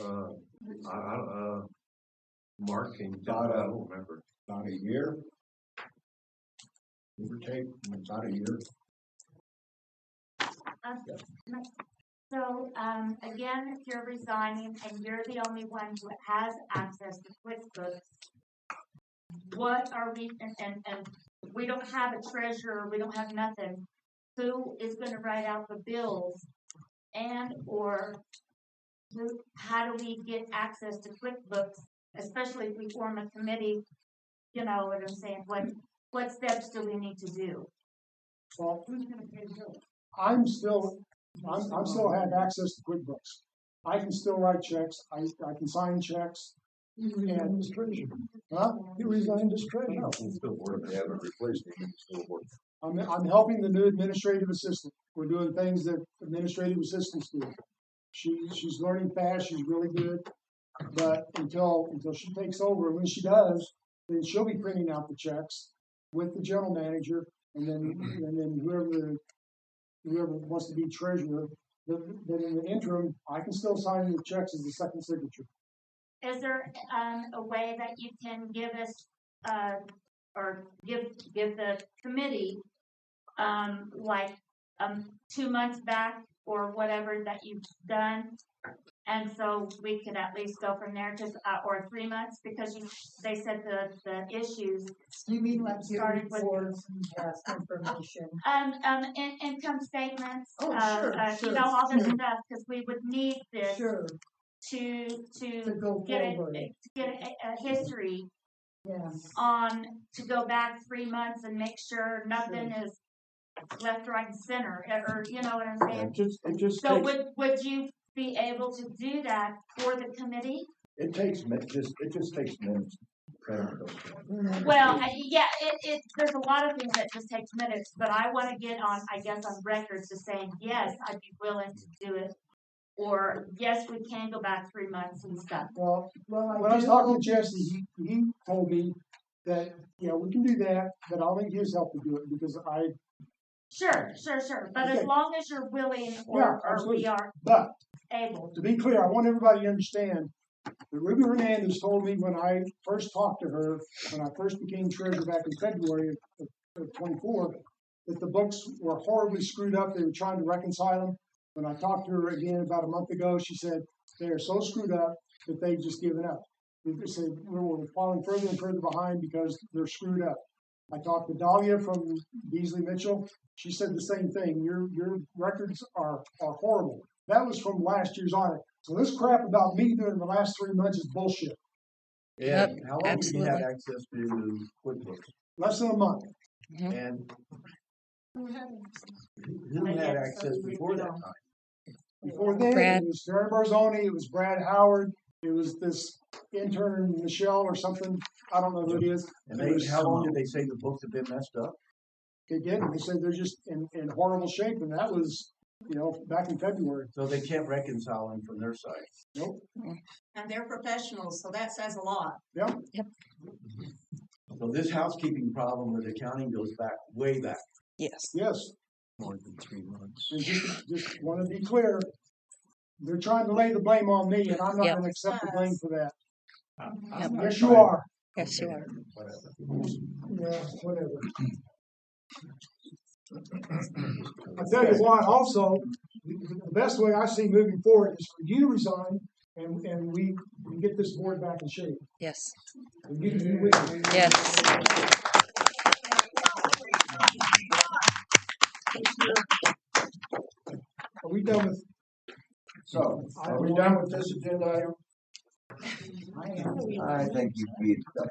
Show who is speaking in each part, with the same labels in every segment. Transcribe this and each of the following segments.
Speaker 1: Uh, I, I don't, uh, Mark and
Speaker 2: Thought
Speaker 1: I
Speaker 2: of-
Speaker 1: don't remember.
Speaker 2: about a year. Give or take, about a year.
Speaker 3: So, um, again, if you're resigning and you're the only one who has access to QuickBooks, what are we, and, and, and we don't have a treasurer, we don't have nothing. Who is gonna write out the bills and or who, how do we get access to QuickBooks, especially if we form a committee? You know what I'm saying? What, what steps do we need to do?
Speaker 4: Well,
Speaker 3: Who's gonna pay the bills?
Speaker 4: I'm still, I'm, I'm still have access to QuickBooks. I can still write checks, I, I can sign checks,
Speaker 5: You resigned as treasurer.
Speaker 4: huh?
Speaker 5: You resigned as
Speaker 1: No,
Speaker 5: treasurer.
Speaker 1: it's still working.
Speaker 2: They haven't replaced it, it's still working.
Speaker 4: I'm, I'm helping the new administrative assistant. We're doing things that administrative assistants do. She, she's learning fast, she's really good, but until, until she takes over, when she does, then she'll be printing out the checks with the general manager, and then, and then whoever, whoever wants to be treasurer, but, but in the interim, I can still sign the checks as the second signature.
Speaker 3: Is there, um, a way that you can give us, uh, or give, give the committee, um, like, um, two months back or whatever that you've done? And so we could at least go from there, just, uh, or three months, because you, they said the, the issues.
Speaker 5: You mean like your
Speaker 3: Started with-
Speaker 5: reports and past information?
Speaker 3: Um, um, in, income statements,
Speaker 5: Oh,
Speaker 3: uh,
Speaker 5: sure,
Speaker 3: uh, you
Speaker 5: sure,
Speaker 3: know, all this
Speaker 5: sure.
Speaker 3: stuff, cause we would need this
Speaker 5: Sure,
Speaker 3: to,
Speaker 5: to
Speaker 3: to
Speaker 5: go
Speaker 3: get a,
Speaker 5: forward,
Speaker 3: to get a, a history
Speaker 5: yeah.
Speaker 6: Um,
Speaker 3: on to go back three months and make sure nothing is left, right, and center, or- or, you know what I'm
Speaker 7: It
Speaker 3: saying?
Speaker 7: just, it just
Speaker 3: So
Speaker 7: takes,
Speaker 3: would, would you be able to do that for the committee?
Speaker 7: it takes, mi- just, it just takes minutes.
Speaker 5: Mhm.
Speaker 3: Well, I- yeah, it, it, there's a lot of things that just takes minutes, but I wanna get on, I guess, on record to saying, yes, I'd be willing to do it. Or, yes, we can go back three months and stuff.
Speaker 4: Well,
Speaker 5: Well,
Speaker 4: When I was
Speaker 5: do
Speaker 4: talking
Speaker 5: hope-
Speaker 4: to Jesse, he, he told me that, yeah, we can do that, but I'll need his help to do it because I,
Speaker 3: Sure, sure, sure, but as
Speaker 4: Okay.
Speaker 3: long as you're willing
Speaker 4: Yeah,
Speaker 3: or, or we
Speaker 4: absolutely.
Speaker 3: are
Speaker 4: but
Speaker 3: able.
Speaker 4: to be clear, I want everybody to understand that Ruby Hernandez told me when I first talked to her, when I first became treasurer back in February of, of twenty-four, that the books were horribly screwed up. They were trying to reconcile them. When I talked to her again about a month ago, she said, they are so screwed up that they've just given up. They just say, we're, we're falling further and further behind because they're screwed up. I talked to Dahlia from Beasley Mitchell. She said the same thing. Your, your records are, are horrible. That was from last year's audit. So this crap about me doing the last three months is bullshit.
Speaker 2: Yeah.
Speaker 7: How long have you had access to QuickBooks?
Speaker 4: Less than a month.
Speaker 7: And who had access before that time?
Speaker 4: Before then,
Speaker 8: Brad.
Speaker 4: it was Terry Barzoni, it was Brad Howard, it was this intern Michelle or something. I don't know who it is.
Speaker 7: And they, how long did they say the books have been messed up?
Speaker 4: They did. They said they're just in, in horrible shape, and that was, you know, back in February.
Speaker 7: So they can't reconcile them from their side.
Speaker 6: And they're professionals, so that says a lot.
Speaker 7: So this housekeeping problem with accounting goes back, way back.
Speaker 8: Yes.
Speaker 4: Yes,
Speaker 1: More than three months.
Speaker 4: and just just want to be clear. They're trying to lay the blame on me, and I'm not
Speaker 8: Yep.
Speaker 4: going to accept the blame for that.
Speaker 8: Yep.
Speaker 4: Yes, you are.
Speaker 8: Yes, you are.
Speaker 4: Yeah, whatever. I tell you what, also, the the best way I see moving forward is for you to resign and, and we can get this board back in shape.
Speaker 8: Yes.
Speaker 4: And you can be with me.
Speaker 8: Yes.
Speaker 4: Are we done with,
Speaker 7: So, are we done with this agenda item?
Speaker 2: I think you beat that.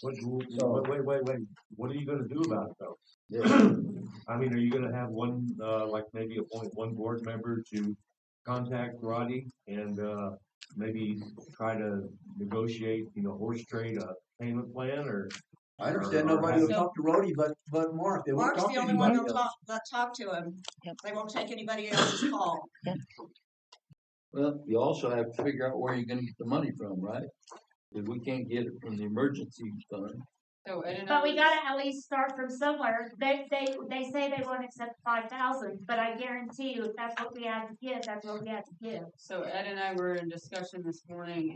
Speaker 1: What, what- wait, wait, wait, what are you gonna do about it though? I mean, are you gonna have one, uh, like maybe appoint one board member to contact Roddy and, uh, maybe try to negotiate, you know, horse trade a payment plan or?
Speaker 7: I understand nobody will
Speaker 6: So-
Speaker 7: talk to Rhodey, but, but Mark, they won't
Speaker 6: Mark's
Speaker 7: talk
Speaker 6: the
Speaker 7: to
Speaker 6: only one
Speaker 7: anybody
Speaker 6: that'll
Speaker 7: else.
Speaker 6: talk, that talk to him.
Speaker 8: Yep.
Speaker 6: They won't take anybody else's call.
Speaker 9: Well, you also have to figure out where you're gonna get the money from, right? If we can't get it from the emergency fund,
Speaker 10: So I don't know.
Speaker 3: But we gotta at least start from somewhere. They, they, they say they won't accept five thousand, but I guarantee you, if that's what we had to give, that's what we had to give.
Speaker 10: So Ed and I were in discussion this morning